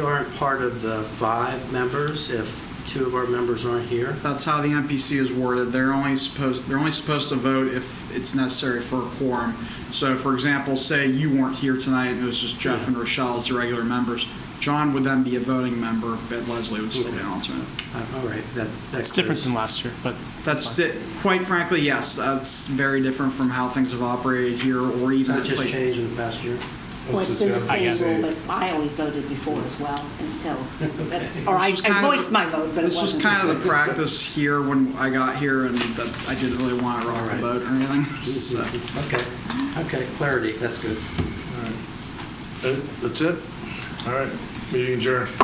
We aren't part of the five members if two of our members aren't here. That's how the NPC is worded. They're only supposed, they're only supposed to vote if it's necessary for a quorum. So for example, say you weren't here tonight and it was just Jeff and Rochelle as the regular members. John would then be a voting member, but Leslie would still be an alternate. Uh, All right, that, that It's different clears. than last year, but That's, di- quite frankly, yes, that's very different from how things have operated here or Has even that at just like. changed in the past year? Well, it's been the I same guess. rule, but I always voted before as well until, or This I was kind I of the- voiced my vote, but it This was wasn't. kind of the practice here when I got here and that I didn't really want to rock the Alright. boat or anything, so. Okay, okay, clarity, that's good. All right. Uh, That's it? All right, meeting adjourned.